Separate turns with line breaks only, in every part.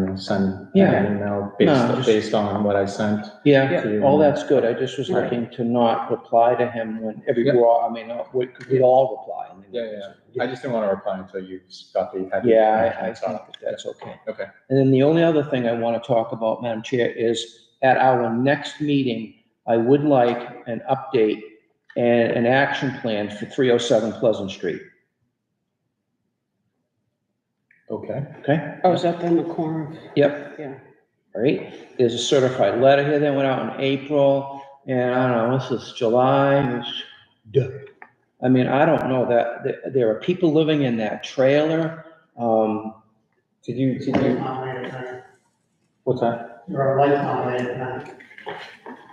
and send
Yeah.
an email
No,
based,
just-
based on what I sent.
Yeah,
Yeah.
all that's good. I just was
Right.
looking to not reply to him when every,
Yeah.
we're all- I mean, uh, we we all reply. I mean,
Yeah, yeah, I just didn't want to reply until you got the. had the-
Yeah, I, I
So,
think that that's okay.
Okay.
And then the only other thing I want to talk about, Madam Chair, is at our next meeting, I would like an update and an action plan for three oh seven Pleasant Street,
Okay,
okay?
Oh, is that then the corner?
Yep.
Yeah.
All right, there's a certified letter here that went out in April, and I don't know, this is July, and it's- I mean, I don't know that, there, there are people living in that trailer, um,
did you, did
Light
you,
on it at night.
what's that?
There are lights on it at night.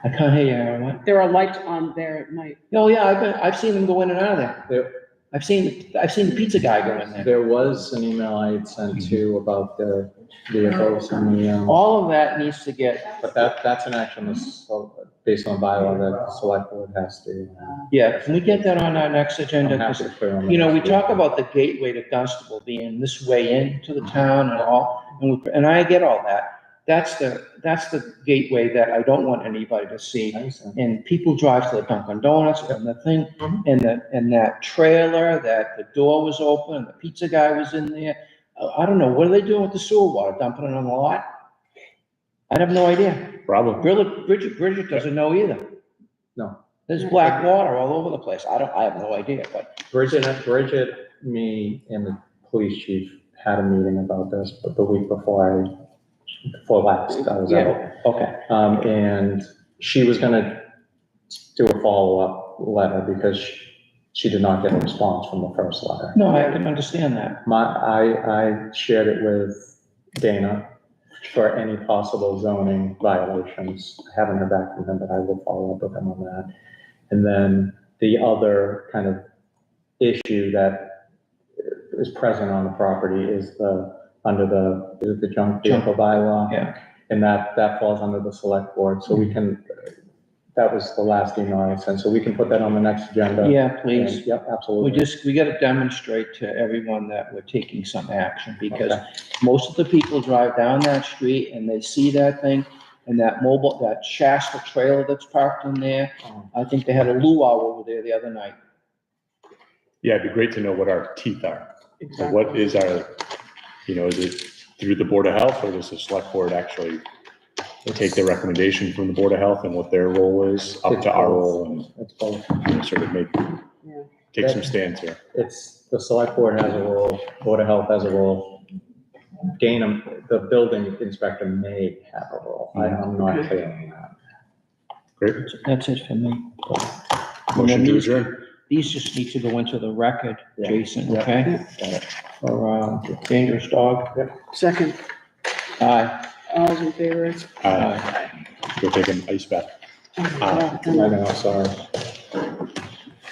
I can't hear you, Aaron, what?
There are lights on there at night.
Oh, yeah, I've been, I've seen them go in and out of there.
There,
I've seen, I've seen the pizza guy go in there.
there was an email I had sent
Mm-hmm.
to about the vehicles and the, um,
All of that needs to get,
but that, that's an action that's so- based on bylaw that the select board has to. um,
yeah, can we get that on our next
I'm
agenda?
happy
'Cause,
to clear on that.
You know, we talk about the gateway to Dunstable being this way into the town and all, and, we- and I get all that. That's the, that's the gateway that I don't want anybody to see.
I understand.
And people drive to the Dunkin' Donuts and the thing,
Mhm.
and the, and that trailer, that the door was open, and the pizza guy was in there. I- I don't know, what are they doing with the sewer water, dumping it on the lot? I have no idea.
Problem.
Bridget, Bridget, Bridget doesn't know either.
No.
There's black water all over the place. I don't, I have no idea, but,
Bridget, Bridget, me and the police chief had a meeting about this, but the week before I, before last, I was out.
okay.
Um, and she was gonna do a follow-up letter because she, she did not get a response from the first letter.
No, I can understand that.
My, I, I shared it with Dana for any possible zoning violations. I haven't heard back from him, but I will follow up with him on that. And then the other kind of issue that is present on the property is the, under the, is it the junk vehicle bylaw?
Yeah.
And that, that falls under the select board, so we can, that was the last email I sent, so we can put that on the next agenda.
Yeah, please.
And- Yep, absolutely.
We just, we gotta demonstrate to everyone that we're taking some action because most of the people drive down that street and they see that thing and that mobile, that Shasta trailer that's parked in there.
Um,
I think they had a luau over there the other night.
Yeah, it'd be great to know what our teeth are. So What is our, you know, is it through the Board of Health or does the Select Board actually take the recommendation from the Board of Health and what their role is up to our role
That's both.
and you know, sort of make, take some stands here.
It's, the select board has a role, Board of Health has a role. Dana, the building inspector may have a role. I- I'm not clear on that.
Great.
That's it for me.
Motion to adjourn.
These just need to go into the record,
Yeah.
Jason,
Yeah.
okay?
Got it.
For, uh, dangerous dog.
Second,
Aye.
all's in favor?
Uh, Go take an ice bath.
Oh,
I
and
know, sorry.